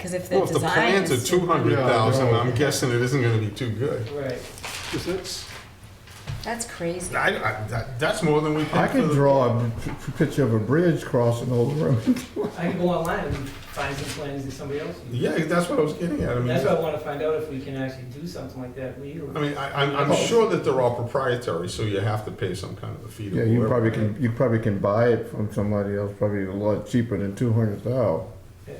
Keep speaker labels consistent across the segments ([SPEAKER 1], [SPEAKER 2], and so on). [SPEAKER 1] Because if the
[SPEAKER 2] Well, if the
[SPEAKER 1] design
[SPEAKER 2] plans are
[SPEAKER 1] is
[SPEAKER 2] two hundred thousand,
[SPEAKER 3] Yeah, no.
[SPEAKER 2] I'm guessing it isn't gonna be too good.
[SPEAKER 3] Right.
[SPEAKER 2] Cause that's,
[SPEAKER 1] That's crazy.
[SPEAKER 2] I, I, that, that's more than we
[SPEAKER 4] I
[SPEAKER 2] paid for
[SPEAKER 4] can
[SPEAKER 2] the.
[SPEAKER 4] draw a p- p- picture of a bridge crossing over the road.
[SPEAKER 3] I can go online and find some plans that somebody else used.
[SPEAKER 2] Yeah, that's what I was getting at, I mean,
[SPEAKER 3] That's why I wanna find out if we can actually do something like that legally.
[SPEAKER 2] I mean, I, I'm,
[SPEAKER 3] Oh.
[SPEAKER 2] I'm sure that they're all proprietary, so you have to pay some kind of a fee to
[SPEAKER 4] Yeah, you
[SPEAKER 2] whoever.
[SPEAKER 4] probably can, you probably can buy it from somebody else, probably a lot cheaper than two hundred thousand.
[SPEAKER 3] Yeah.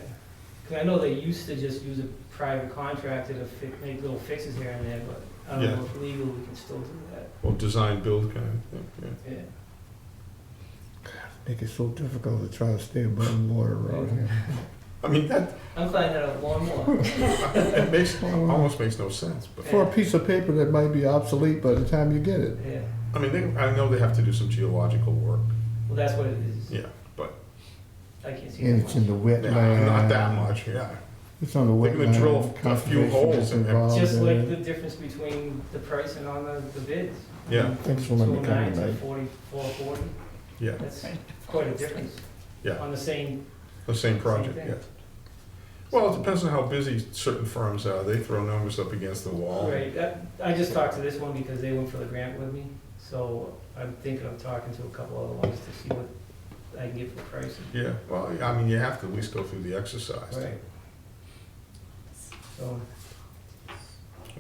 [SPEAKER 3] Cause I know they used to just use a private contractor to fi- make little fixes here and there, but I don't know if legal we can still do that,
[SPEAKER 2] Or design build kind of thing, yeah.
[SPEAKER 3] yeah.
[SPEAKER 4] Make it so difficult to try to stay above water around here.
[SPEAKER 2] I mean, that,
[SPEAKER 3] I'm finding that out more and more.
[SPEAKER 2] it makes,
[SPEAKER 4] uh,
[SPEAKER 2] almost makes no sense, but,
[SPEAKER 4] For a piece of paper that might be obsolete by the time you get it.
[SPEAKER 3] Yeah,
[SPEAKER 2] I mean, they, I know they have to do some geological work,
[SPEAKER 3] well, that's what it is.
[SPEAKER 2] yeah, but,
[SPEAKER 3] I can't see
[SPEAKER 4] And it's
[SPEAKER 3] that
[SPEAKER 4] in the
[SPEAKER 2] yeah,
[SPEAKER 4] wetland.
[SPEAKER 2] not that much, yeah.
[SPEAKER 4] It's on the
[SPEAKER 2] They're
[SPEAKER 4] wetland.
[SPEAKER 2] gonna drill a few
[SPEAKER 4] Conservation
[SPEAKER 2] holes
[SPEAKER 4] is
[SPEAKER 2] in there.
[SPEAKER 4] involved
[SPEAKER 3] much. Just
[SPEAKER 4] in
[SPEAKER 3] like
[SPEAKER 4] it.
[SPEAKER 3] the difference between the pricing on the, the bids.
[SPEAKER 2] Yeah.
[SPEAKER 4] Thanks for letting me come
[SPEAKER 3] 209 to
[SPEAKER 4] tonight.
[SPEAKER 3] 44, 40.
[SPEAKER 2] Yeah,
[SPEAKER 3] that's quite a difference.
[SPEAKER 2] Yeah.
[SPEAKER 3] On the same,
[SPEAKER 2] the same project,
[SPEAKER 3] Same
[SPEAKER 2] yeah.
[SPEAKER 3] thing.
[SPEAKER 2] Well, it depends on how busy certain firms are, they throw numbers up against the wall.
[SPEAKER 3] right, that- I just talked to this one because they went for the grant with me, so I'm thinking of talking to a couple other ones to see what I can get for pricing.
[SPEAKER 2] Yeah, well, I mean, you have to at least go through the exercise.
[SPEAKER 3] Right. So,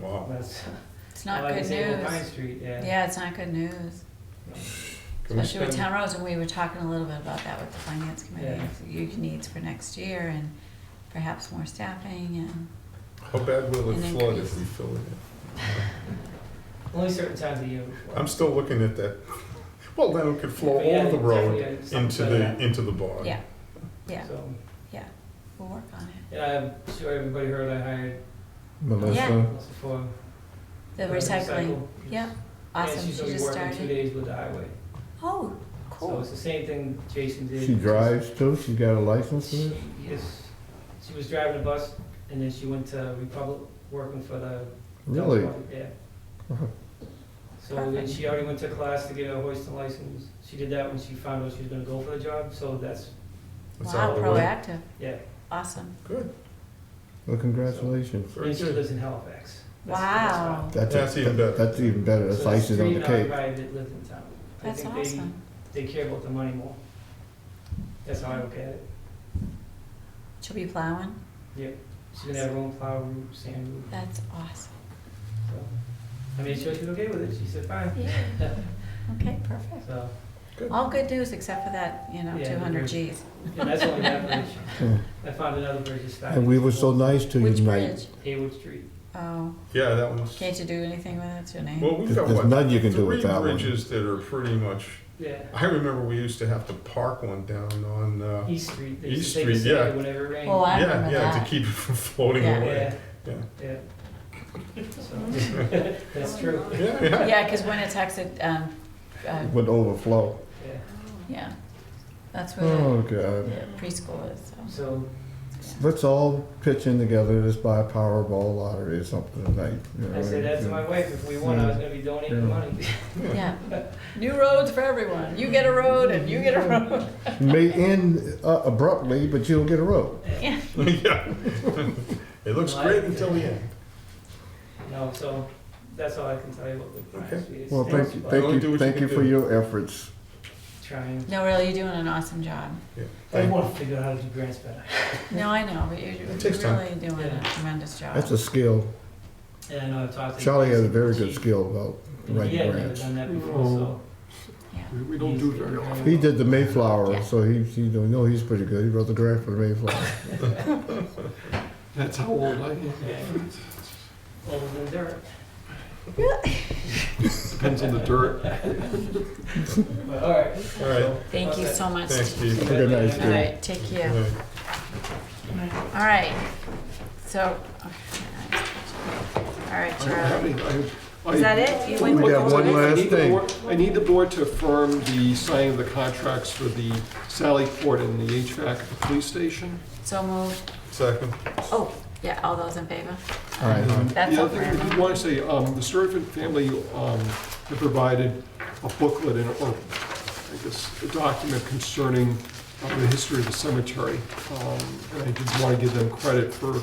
[SPEAKER 2] Wow.
[SPEAKER 3] that's.
[SPEAKER 1] It's not
[SPEAKER 3] like I
[SPEAKER 1] good
[SPEAKER 3] say, Old Pine
[SPEAKER 1] news.
[SPEAKER 3] Street, yeah.
[SPEAKER 1] Yeah, it's not good news,
[SPEAKER 2] Can we
[SPEAKER 1] especially with
[SPEAKER 2] spend-
[SPEAKER 1] town roads. And we were talking a little bit about that with the finance committee.
[SPEAKER 3] Yeah.
[SPEAKER 1] You needs for next year and perhaps more staffing and.
[SPEAKER 2] How bad will it
[SPEAKER 1] And
[SPEAKER 2] flood
[SPEAKER 1] increase.
[SPEAKER 2] if we fill it in?
[SPEAKER 3] Only certain times of year. before.
[SPEAKER 2] I'm still looking at that. Well, then it could flow
[SPEAKER 3] But yeah,
[SPEAKER 2] over the road
[SPEAKER 3] definitely, yeah, something
[SPEAKER 2] into
[SPEAKER 3] like
[SPEAKER 2] the,
[SPEAKER 3] that.
[SPEAKER 2] into the bog.
[SPEAKER 1] Yeah. Yeah,
[SPEAKER 3] So,
[SPEAKER 1] we'll work on it.
[SPEAKER 3] yeah, I'm sure everybody heard I hired
[SPEAKER 4] Melissa,
[SPEAKER 1] Yeah.
[SPEAKER 3] Melissa for.
[SPEAKER 1] The
[SPEAKER 3] for
[SPEAKER 1] recycling,
[SPEAKER 3] recycle.
[SPEAKER 1] yeah,
[SPEAKER 3] And
[SPEAKER 1] awesome. She
[SPEAKER 3] she's gonna be
[SPEAKER 1] just
[SPEAKER 3] working two
[SPEAKER 1] started.
[SPEAKER 3] days with the highway.
[SPEAKER 1] Oh,
[SPEAKER 3] So
[SPEAKER 1] cool.
[SPEAKER 3] it's the same thing Jason did.
[SPEAKER 4] she drives too, she got a license for
[SPEAKER 3] She
[SPEAKER 4] it?
[SPEAKER 3] is, she was driving a bus and then she went to Republic working for the.
[SPEAKER 4] Really? Uh-huh.
[SPEAKER 3] Yeah.
[SPEAKER 4] Wow.
[SPEAKER 3] So then she already went to class to get her hoisting license. She did that when she found out she was gonna go for the job, so that's,
[SPEAKER 2] That's
[SPEAKER 1] Wow,
[SPEAKER 2] out of the way.
[SPEAKER 1] proactive.
[SPEAKER 3] yeah.
[SPEAKER 1] Awesome.
[SPEAKER 2] Good,
[SPEAKER 4] Well, congratulations.
[SPEAKER 2] very
[SPEAKER 3] And she
[SPEAKER 2] good.
[SPEAKER 3] lives in Halifax. That's- that's
[SPEAKER 1] Wow.
[SPEAKER 3] fine.
[SPEAKER 4] That's,
[SPEAKER 2] That's
[SPEAKER 4] a-
[SPEAKER 2] even better.
[SPEAKER 4] That's even better, that's
[SPEAKER 3] So there's
[SPEAKER 4] icing on the
[SPEAKER 3] three
[SPEAKER 4] cake.
[SPEAKER 3] non-private that live in town. I
[SPEAKER 1] That's
[SPEAKER 3] think they-
[SPEAKER 1] awesome.
[SPEAKER 3] They care about the money more. That's how I look at it.
[SPEAKER 1] She'll be plowing.
[SPEAKER 3] She's gonna have her own plow route, sand route.
[SPEAKER 1] That's awesome.
[SPEAKER 3] So, I mean, she was okay with it, she said, fine.
[SPEAKER 1] Okay, perfect.
[SPEAKER 3] So,
[SPEAKER 1] All good news except for that, you know,
[SPEAKER 3] Yeah,
[SPEAKER 1] two hundred
[SPEAKER 3] agree.
[SPEAKER 1] Gs.
[SPEAKER 3] and that's only that bridge.
[SPEAKER 4] Yeah.
[SPEAKER 3] I found another bridge this time.
[SPEAKER 4] And we were so nice to you
[SPEAKER 1] Which
[SPEAKER 4] tonight.
[SPEAKER 1] bridge?
[SPEAKER 3] Haywood Street.
[SPEAKER 1] Oh,
[SPEAKER 2] Yeah, that one's,
[SPEAKER 1] can't you do anything with it? It's your name.
[SPEAKER 2] well, we've
[SPEAKER 4] There's
[SPEAKER 2] got
[SPEAKER 4] there's
[SPEAKER 2] what,
[SPEAKER 4] nothing you can do
[SPEAKER 2] three
[SPEAKER 4] with that one.
[SPEAKER 2] bridges that are pretty much,
[SPEAKER 3] Yeah.
[SPEAKER 2] I remember we used to have to park one down on, uh,
[SPEAKER 3] East Street. They used
[SPEAKER 2] East
[SPEAKER 3] to take
[SPEAKER 2] Street,
[SPEAKER 3] the
[SPEAKER 2] yeah.
[SPEAKER 3] sand whenever it rained.
[SPEAKER 1] Oh, I
[SPEAKER 2] yeah,
[SPEAKER 1] remember
[SPEAKER 2] yeah, to
[SPEAKER 1] that.
[SPEAKER 2] keep it from floating
[SPEAKER 1] Yeah.
[SPEAKER 2] away.
[SPEAKER 3] Yeah,
[SPEAKER 2] Yeah.
[SPEAKER 3] yeah. So, That's true.
[SPEAKER 2] Yeah, yeah.
[SPEAKER 1] Yeah, because when it's texted, um, uh,
[SPEAKER 4] It Would overflow.
[SPEAKER 3] Yeah.
[SPEAKER 1] yeah, that's where
[SPEAKER 4] Oh,
[SPEAKER 1] the
[SPEAKER 4] God.
[SPEAKER 1] the preschool is, so.
[SPEAKER 3] So,
[SPEAKER 4] Let's all pitch in together, let's buy a Powerball lottery or something tonight. you know,
[SPEAKER 3] I said that to my wife, if we won, I was gonna be donating the money.
[SPEAKER 1] Yeah. New roads for everyone. You get a road and you get a road.
[SPEAKER 4] It May end uh, abruptly, but you'll get a road.
[SPEAKER 1] Yeah.
[SPEAKER 2] Yeah. It looks
[SPEAKER 3] No, I-
[SPEAKER 2] great until the end.
[SPEAKER 3] No, so, that's all I can tell you about the
[SPEAKER 2] Okay.
[SPEAKER 3] Bryant Street. It's
[SPEAKER 4] Well, thank you,
[SPEAKER 3] thanks,
[SPEAKER 2] Only
[SPEAKER 4] thank
[SPEAKER 2] do what
[SPEAKER 4] you,
[SPEAKER 2] you
[SPEAKER 4] thank
[SPEAKER 2] can
[SPEAKER 4] you for
[SPEAKER 2] do.
[SPEAKER 4] your efforts.
[SPEAKER 3] but Trying.
[SPEAKER 1] No, really, you're doing an awesome job.
[SPEAKER 2] Yeah.
[SPEAKER 3] I
[SPEAKER 2] Thank-
[SPEAKER 3] wanna figure out how to do grants better.
[SPEAKER 1] No, I know, but you're you're
[SPEAKER 2] It takes time.
[SPEAKER 1] really doing a tremendous job.
[SPEAKER 4] That's a skill.
[SPEAKER 3] And I know I've talked to.
[SPEAKER 4] Charlie has a very
[SPEAKER 3] Chief.
[SPEAKER 4] good skill about
[SPEAKER 3] He
[SPEAKER 4] writing
[SPEAKER 3] had never
[SPEAKER 4] grants.
[SPEAKER 3] done that before, so.
[SPEAKER 5] We- We don't do very often.
[SPEAKER 4] He did the Mayflower,
[SPEAKER 1] Yeah.
[SPEAKER 4] so he, he, you know, he's pretty good. He wrote the grant for the Mayflower.
[SPEAKER 5] That's how old I am.
[SPEAKER 3] Yeah. Older than dirt.
[SPEAKER 5] Depends on the dirt.
[SPEAKER 3] But, all right.
[SPEAKER 2] All right,
[SPEAKER 1] Thank you so much.
[SPEAKER 2] thanks, Steve.
[SPEAKER 4] Have a good night,
[SPEAKER 1] All
[SPEAKER 4] Steve.
[SPEAKER 1] right, take care. All right, so, all right,
[SPEAKER 5] I don't have
[SPEAKER 1] Charlie.
[SPEAKER 5] any- I- I-
[SPEAKER 1] Is that it? You went
[SPEAKER 4] We
[SPEAKER 1] with
[SPEAKER 4] got
[SPEAKER 1] the
[SPEAKER 4] one
[SPEAKER 5] I need- I
[SPEAKER 4] last
[SPEAKER 5] need the
[SPEAKER 4] thing.
[SPEAKER 5] board- I need the board to affirm the signing of the contracts for the Sally Port and the HVAC at the police station.
[SPEAKER 1] So moved.
[SPEAKER 2] Second.
[SPEAKER 1] Oh, yeah, all those in favor?
[SPEAKER 4] All right.
[SPEAKER 1] That's
[SPEAKER 5] The
[SPEAKER 1] all
[SPEAKER 5] other
[SPEAKER 1] for
[SPEAKER 5] thing I
[SPEAKER 1] everyone.
[SPEAKER 5] did want to say, um, the Servant family, um, have provided a booklet and, or, I guess, a document concerning uh, the history of the cemetery. Um, And I did want to give them credit for